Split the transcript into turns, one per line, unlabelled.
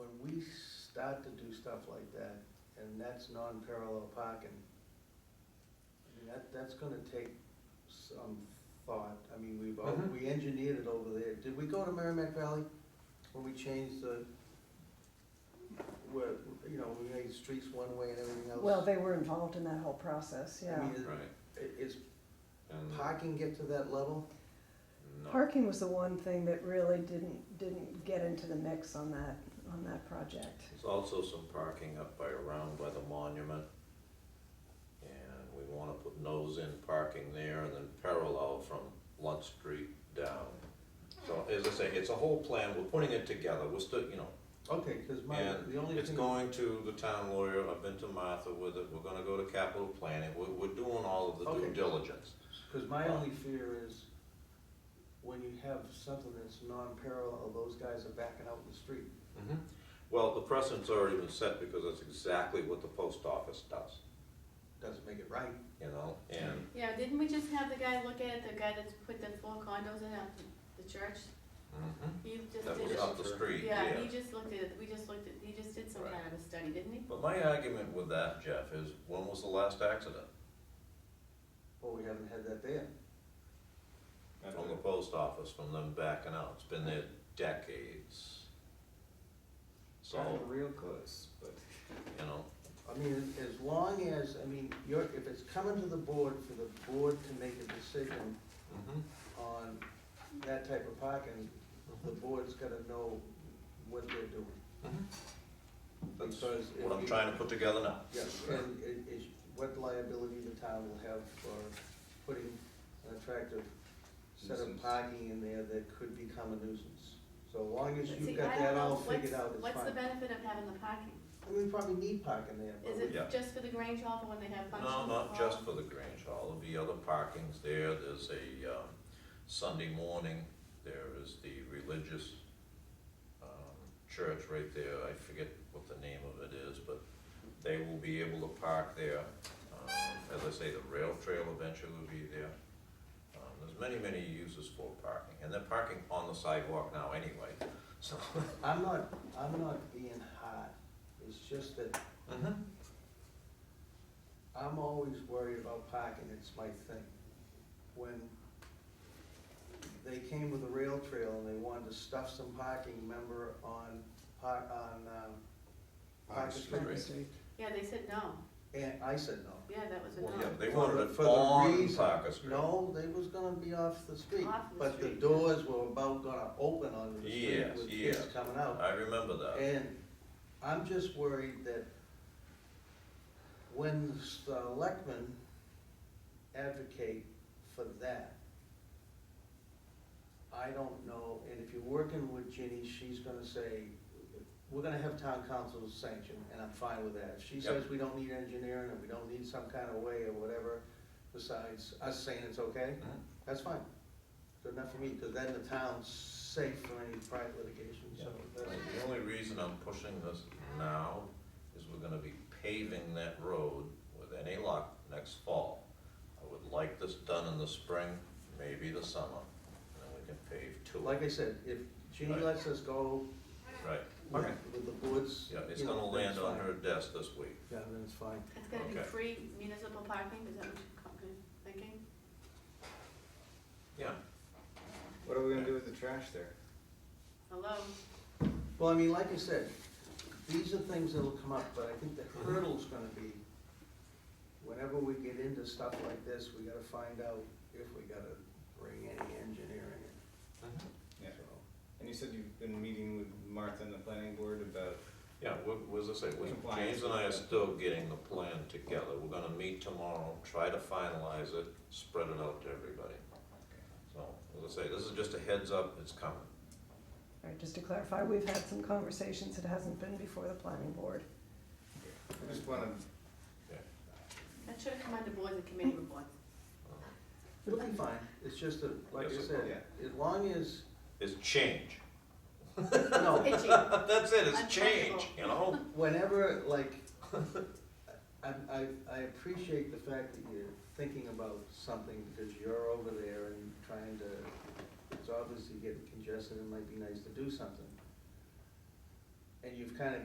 start to do stuff like that, and that's non-parallel parking, I mean, that, that's gonna take some thought. I mean, we've, all-
Mhm.
we engineered it over there. Did we go to Merrimack Valley when we changed the, where, you know, we made streets one way and everything else?
Well, they were involved in that whole process,
I
yeah.
mean,
Right.
i- Is
And
parking get to that level?
no,
Parking was the one thing that really didn't, didn't get into the mix on that, on that project.
there's also some parking up by around by the monument. And we wanna put nose in parking there and then parallel from Lunt Street down. So as I say, it's a whole plan, we're putting it together, we're still, you know,
Okay, because my, the
And
only
it's
thing,
going to the town lawyer, I've been to Martha with it, we're gonna go to capital planning, we're, we're doing all of the due
Okay.
diligence.
because my only fear is when you have something that's non-parallel, oh, those guys are backing out in the street.
Mhm. Well, the precedent's already been set because that's exactly what the post office does,
Doesn't make it right.
you know, and,
Yeah, didn't we just have the guy look at it, the guy that's put the four condos in at the church?
Mm-hmm.
mhm,
He just
that
did
was
it.
up the street,
Yeah,
yeah.
he just looked at it, we just looked at, he just did some
Right.
kind of a study, didn't he?
But my argument with that, Jeff, is when was the last accident
Well, we haven't had that there.
from the post office, from them backing out? It's been there decades. So,
real close, but.
you know,
I mean, as long as, I mean, you're, if it's coming to the board for the board to make a decision
mhm,
on that type of parking, the
mhm,
board's gotta know what they're doing.
mhm. That's
Because if
mm-hmm. what I'm
you-
trying to put together now.
Yes, and it is, what liability the town will have for putting an attractive set of
Nuisance.
parking in there that could become a nuisance. So long as
See,
you've
I
got
don't
that
know,
all
what's-
figured out, it's
What's the
fine.
benefit of having the parking?
I mean, we probably need parking there, but
Is
we-
Oh, Yeah.
it just for the Grange Hall for when they have functions?
No, not
or-
just for the Grange Hall, there'll be other parkings there, there's a, um, Sunday morning, there is the religious, um, church right there, I forget what the name of it is, but they will be able to park there. Um, as I say, the rail trail eventually will be there. Um, there's many, many uses for parking, and they're parking on the sidewalk now anyway, so.
I'm not, I'm not being hard. It's just that
Mhm.
I'm always worried about parking, it's my thing. When they came with the rail trail and they wanted to stuff some parking, remember, on, par- on, um, Parker Street.
Franklin Street.
Yeah, they said no,
And I said no.
yeah, that was a
Well, yeah,
no.
they
For
wanted
the-
it
for the
on
reason-
Parker Street.
No, they was gonna be off the street.
Off the
But the
street.
doors were about gonna open on the street
Yes,
with kids
yes.
coming out.
I remember that.
And I'm just worried that when the selectmen advocate for that, I don't know, and if you're working with Ginny, she's gonna say, we're gonna have town council's sanction, and I'm fine with that. If she says we don't need engineering, and we don't need some kind of way or whatever, besides us saying it's okay,
Mhm.
that's fine. Good enough for me, because then the town's safe from any private litigation, so that's.
And The only reason I'm pushing this now is we're gonna be paving that road with any luck next fall. I would like this done in the spring, maybe the summer, and then we can pave to it.
Like I said, if Jeannie
Right.
lets us go
Right,
with
Okay.
with the boards.
yeah, it's
you know,
gonna
then
land
it's
on
fine.
her desk this week.
Yeah, then it's fine.
It's gonna be
Okay.
free municipal parking, is that what you're co- thinking?
Yeah,
What are we gonna do with the trash there?
Hello,
Well, I mean, like I said, these are things that'll come up, but I think the
Mm-hmm.
hurdle's gonna be, whenever we get into stuff like this, we gotta find out if we gotta bring any engineering in,
Yeah,
so.
and you said you've been meeting with Martha and the planning board about,
yeah, what, was I say, we-
Compliance.
James and I are still getting the plan together. We're gonna meet tomorrow, try to finalize it, spread it out to everybody. So, as I say, this is just a heads up, it's coming.
All right, just to clarify, we've had some conversations, it hasn't been before the planning board.
I just wanna,
that should have come under boards and committee reports.
It'll be fine, it's just that, like I
Yes, it
said,
will.
as long as,
It's change.
no,
Itchy,
That's it, it's
Uncomfortable.
change, you know?
whenever, like, I, I, I appreciate the fact that you're thinking about something because you're over there and trying to, it's obviously getting congested, it might be nice to do something. And you've kind of